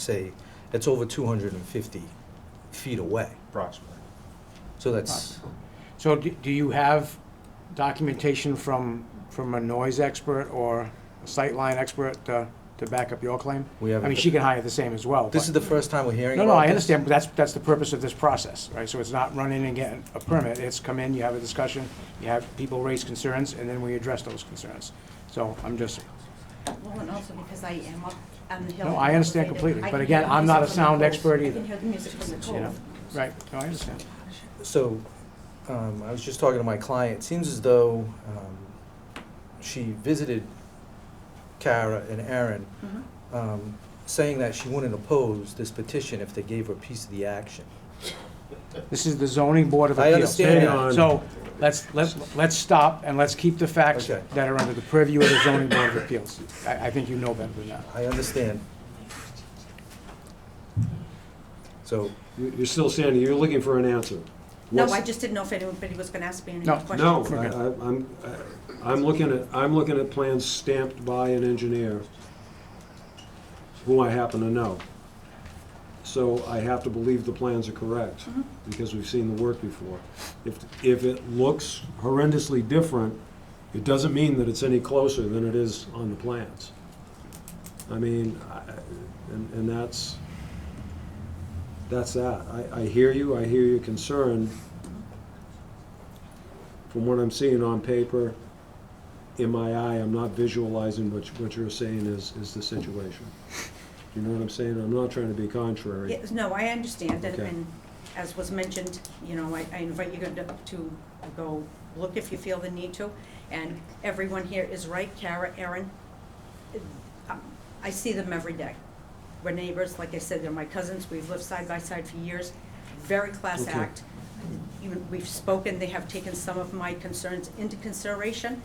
say, that's over 250 feet away. approximately. So that's, So do do you have documentation from, from a noise expert or a sightline expert to, to back up your claim? We have- I mean, she can hire the same as well. this is but- the first time we're hearing No, about this. no, I understand, but that's, that's the purpose of this process, right? So it's not run in and get a permit, it's come in, you have a discussion, you have people raise concerns, and then we address those concerns. So I'm just, Well, and also because I am up on the hill. no, I understand completely, but again, I'm not a sound expert I either, can hear the music from the you know? cove. Right, no, I understand. So, um, I was just talking to my client, it seems as though, um, she visited Kara and Aaron, Mhm. um, saying that she wouldn't oppose this petition if they gave her a piece of the action. This is the zoning board of I appeals. understand Hang that. on. So, let's, let's, let's stop and let's keep the facts Okay. that are under the purview of the zoning board of appeals. I, I think you know better than that. I understand. So, You- You're still standing, you're looking for an answer. No, What's- I just didn't know if anybody was gonna ask me any No. questions. No, Okay. I- I- I'm, I- I'm looking at, I'm looking at plans stamped by an engineer who I happen to know. So I have to believe the plans are correct, Mm-hmm. because we've seen the work before. If, if it looks horrendously different, it doesn't mean that it's any closer than it is on the plans. I mean, I- and, and that's, that's that. I, I hear you, I hear your concern. From what I'm seeing on paper, in my eye, I'm not visualizing what, you- what you're saying is, is the situation. You know what I'm saying? I'm not trying to be contrary. Yes, no, I understand, and, Okay. and as was mentioned, you know, I, I invite you to, to go look if you feel the need to, and everyone here is right, Kara, Erin, um, I see them every day. We're neighbors, like I said, they're my cousins, we've lived side by side for years, very class Okay. act. You- We've spoken, they have taken some of my concerns into consideration,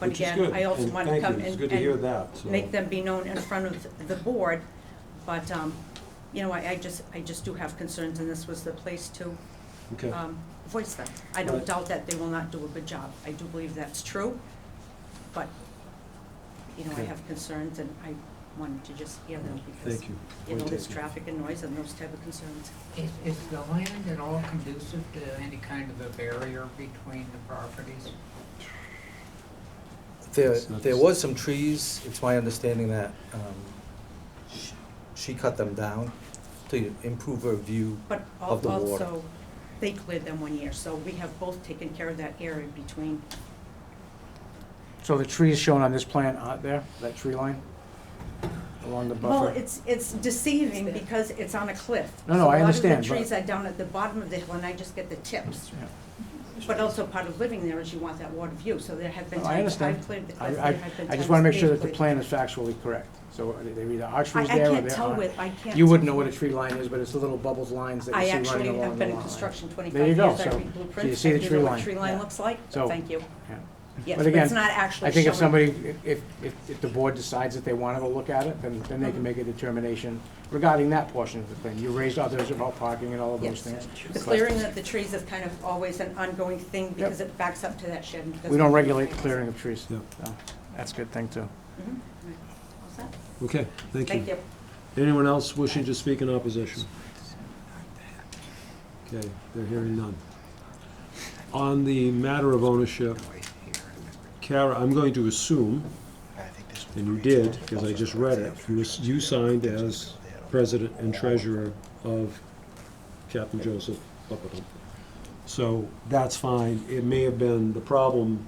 but Which is again, good, I also and want to thank you. come and. It's good to hear and that, so. Make them be known in front of the board, but, um, you know, I, I just, I just do have concerns, and this was the place to, Okay. um, voice them. I don't Right. doubt that they will not do a good job, I do believe that's true, but, you know, I Okay. have concerns, and I wanted to just hear them, because, Thank you. you know, Point there's taken. traffic and noise and those type of concerns. Is, is the land at all conducive to any kind of a barrier between the properties? There, It's not there just- was some trees, it's my understanding that, um, sh- she cut them down to improve her view. But al- Of the water. also, they cleared them one year, so we have both taken care of that area between, So the trees shown on this plan aren't there, that tree line along the well, buffer? it's, it's deceiving because it's on a cliff. No, no, So I A lot understand, of but- the trees are down at the bottom of the hill, and I just get the tips. Yeah. But also part of living there is you want that water view, so there have been No, I times understand. I've cleared the I, cliff, there I, have been times. I just want to make sure they've that the plan cleared- is factually correct. So uh, they either are I, trees I there or can't they tell aren't. with, I can't. You wouldn't know what a tree line is, but it's the little bubbled lines that I you see actually running along the have been in lot line. construction There you twenty-five go. years, I So- read so you blueprints, see I the do tree know what line. tree line Yeah. looks like, So- thank you. Yeah. Yes, But but it's again, not actually I think if showing. somebody, if, if, if the board decides that they want to go look at it, then, then they can make a determination regarding that portion of the thing. You raised others about parking and all of those Yes, things. the but clearing of the trees is kind of always an ongoing thing because it backs up to that shed. and doesn't- We don't regulate the clearing of trees. Yeah. so That's a good thing, too. Mhm. All set? Okay, thank Thank you. you. Anyone else wishing to speak in opposition? Okay, they're hearing none. On the matter of ownership, Kara, I'm going to assume, and you did, because I just read it, you s- you signed as president and treasurer of Captain Joseph Buckledum. So that's fine. It may have been, the problem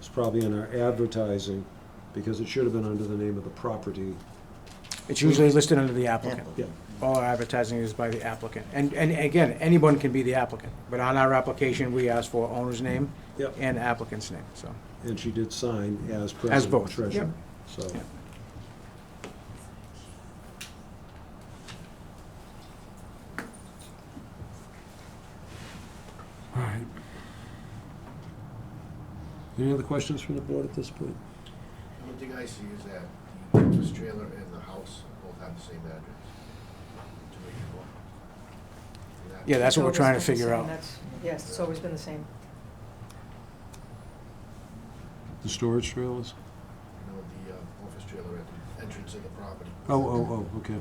is probably in our advertising, because it should have been under the name of the property. It's usually listed under the applicant. Yeah. All our advertising is by the applicant. And, and again, anyone can be the applicant, but on our application, we ask for owner's name Yep. and applicant's name, so. And she did sign as As president both, and treasurer. So, Yep. all right. Any other questions from the board at this point? The only thing I see is that the Christmas trailer and the house both have the same address. 284. And that- Yeah, that's what we're It's trying to always been the figure same. out. That's- Yes, it's always been the same. The storage trailers? You know, the uh, office trailer at the entrance of the property. Oh, oh, oh, okay.